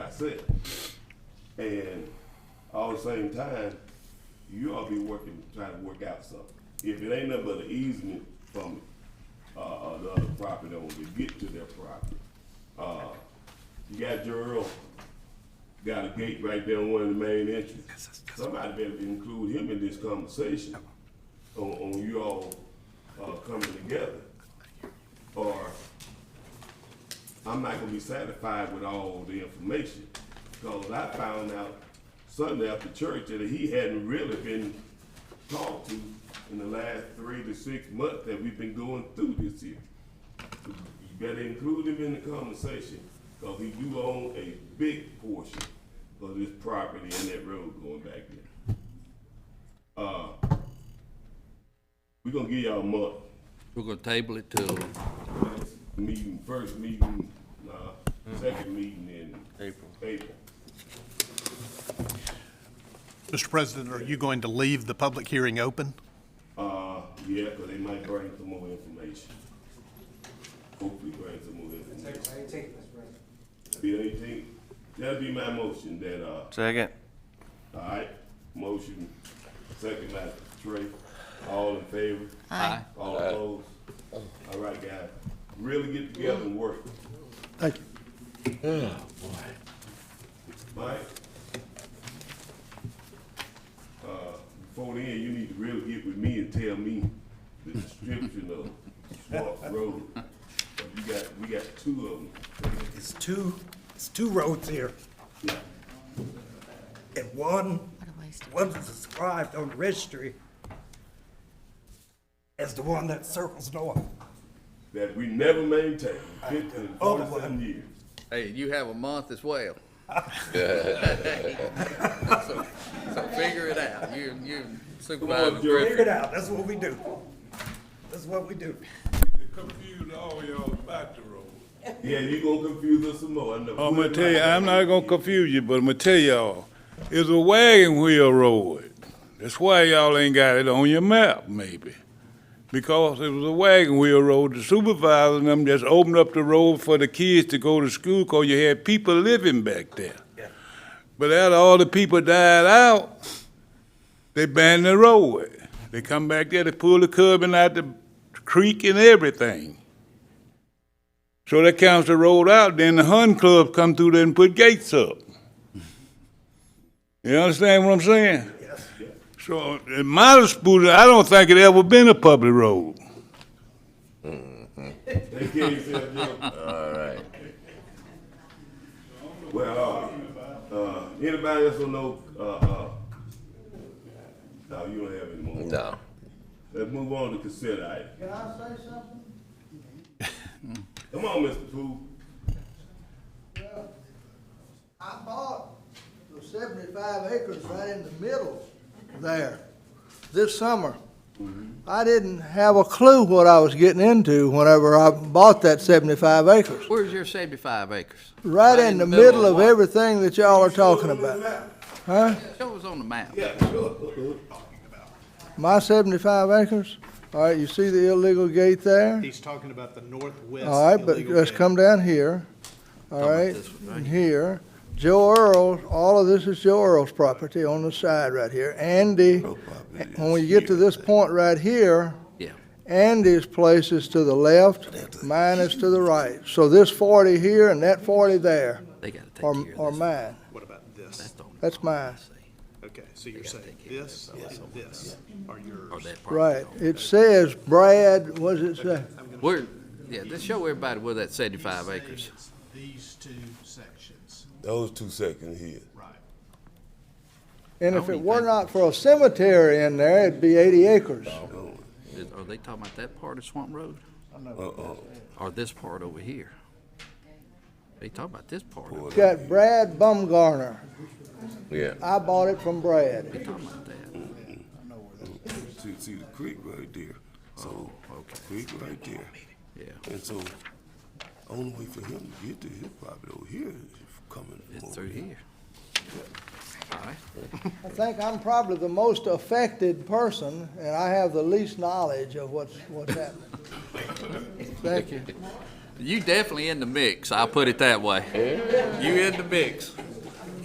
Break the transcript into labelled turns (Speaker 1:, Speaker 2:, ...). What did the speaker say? Speaker 1: set. And all the same time, you ought to be working, trying to work out something. If it ain't nothing but an easement from, uh, uh, the other property owner to get to their property. Uh, you got Gerald, got a gate right there on one of the main entrances. Somebody better include him in this conversation on, on you all, uh, coming together. Or I'm not gonna be satisfied with all the information, because I found out Sunday after church that he hadn't really been talked to in the last three to six months that we've been going through this year. You better include him in the conversation, because he do own a big portion of this property and that road going back there. Uh, we gonna give y'all a month
Speaker 2: We're gonna table it till
Speaker 1: next meeting, first meeting, uh, second meeting in
Speaker 2: April.
Speaker 1: April.
Speaker 3: Mr. President, are you going to leave the public hearing open?
Speaker 1: Uh, yeah, cause they might bring some more information. Hopefully bring some more information. Be anything, that'll be my motion that, uh,
Speaker 4: Second.
Speaker 1: alright, motion, second by Trey, all in favor?
Speaker 2: Aye.
Speaker 1: All opposed? Alright, guys, really get together and work.
Speaker 5: Thank you.
Speaker 1: Mike? Uh, before then, you need to really get with me and tell me the description of Swamp Road. You got, we got two of them.
Speaker 5: It's two, it's two roads here,
Speaker 1: Yeah,
Speaker 5: and one,
Speaker 6: What a waste of
Speaker 5: one's described on the registry as the one that circles north.
Speaker 1: That we never maintained, fifteen,
Speaker 5: Other one.
Speaker 1: forty-seven years.
Speaker 2: Hey, you have a month as well. So so figure it out. You, you
Speaker 1: Come
Speaker 2: supervisor
Speaker 1: on, Jerry.
Speaker 5: Figure it
Speaker 2: Griffin.
Speaker 5: out, that's what we do. That's what we do.
Speaker 7: confused all y'all about the road.
Speaker 1: Yeah, you gonna confuse us some more. I'm
Speaker 7: I'm gonna tell you, I'm not gonna confuse you, but I'm gonna tell y'all, it's a wagon wheel road. That's why y'all ain't got it on your map, maybe. Because it was a wagon wheel road, the supervisor and them just opened up the road for the kids to go to school, cause you had people living back there.
Speaker 5: Yeah.
Speaker 7: But after all the people died out, they banned the road. They come back there, they pull the curbing out the creek and everything. So that counts the road out, then the Hun Club come through there and put gates up. You understand what I'm saying?
Speaker 5: Yes.
Speaker 7: So in my disposal, I don't think it ever been a public road.
Speaker 1: Take care of yourself, Joe. All right. Well, uh, uh, anybody else don't know, uh, uh, no, you don't have any more.
Speaker 4: No.
Speaker 1: Let's move on to consent item. Can I say something? Come on, Mr. Pooh.
Speaker 8: I bought the seventy-five acres right in the middle there this summer. I didn't have a clue what I was getting into whenever I bought that seventy-five acres.
Speaker 2: Where's your seventy-five acres?
Speaker 8: Right in the middle of
Speaker 2: what?
Speaker 8: everything that y'all are talking about, huh?
Speaker 2: Show us on the map.
Speaker 1: Yeah, sure.
Speaker 8: My seventy-five acres, all right, you see the illegal gate there?
Speaker 3: He's talking about the northwest.
Speaker 8: All right, but let's come down here, all
Speaker 2: about
Speaker 8: right,
Speaker 2: this one, right
Speaker 8: and here. Joe Earl, all of this is Joe Earl's property on the side right here. Andy, when we get to this point right here,
Speaker 2: Yeah.
Speaker 8: Andy's place is to the left, mine is to the right. So this forty here and that forty there
Speaker 2: They gotta take care
Speaker 8: are,
Speaker 2: of this.
Speaker 8: are mine.
Speaker 3: What about
Speaker 2: That's
Speaker 3: this?
Speaker 2: the only
Speaker 8: That's
Speaker 2: problem I
Speaker 8: mine.
Speaker 2: see.
Speaker 3: Okay, so you're
Speaker 2: gotta
Speaker 3: saying
Speaker 2: take care of
Speaker 3: this and this are
Speaker 2: Or
Speaker 3: yours.
Speaker 2: that part.
Speaker 8: Right. It says Brad, what does it say?
Speaker 2: Where, yeah, let's show everybody where that seventy-five acres.
Speaker 3: These two sections,
Speaker 1: Those two seconds here.
Speaker 3: right.
Speaker 8: And
Speaker 2: I
Speaker 8: if
Speaker 2: don't
Speaker 8: it
Speaker 2: even
Speaker 8: were
Speaker 2: think-
Speaker 8: not for a cemetery in there, it'd be eighty acres.
Speaker 2: Is- Are they talking about that part of Swamp Road?
Speaker 1: Uh,
Speaker 2: Or this part over here? They talking about this part. over-
Speaker 8: It's got Brad Bumgarner.
Speaker 4: Yeah.
Speaker 8: I bought it from Brad.
Speaker 2: They talking about that.
Speaker 1: See, see the creek right there. So, creek right there.
Speaker 2: Yeah.
Speaker 1: And so, only way for him to get to his property over here is coming.
Speaker 2: It's through here. All right.
Speaker 8: I think I'm probably the most affected person, and I have the least knowledge of what's, what's happening. Thank you.
Speaker 2: You definitely in the mix, I'll put it that way. You in the mix.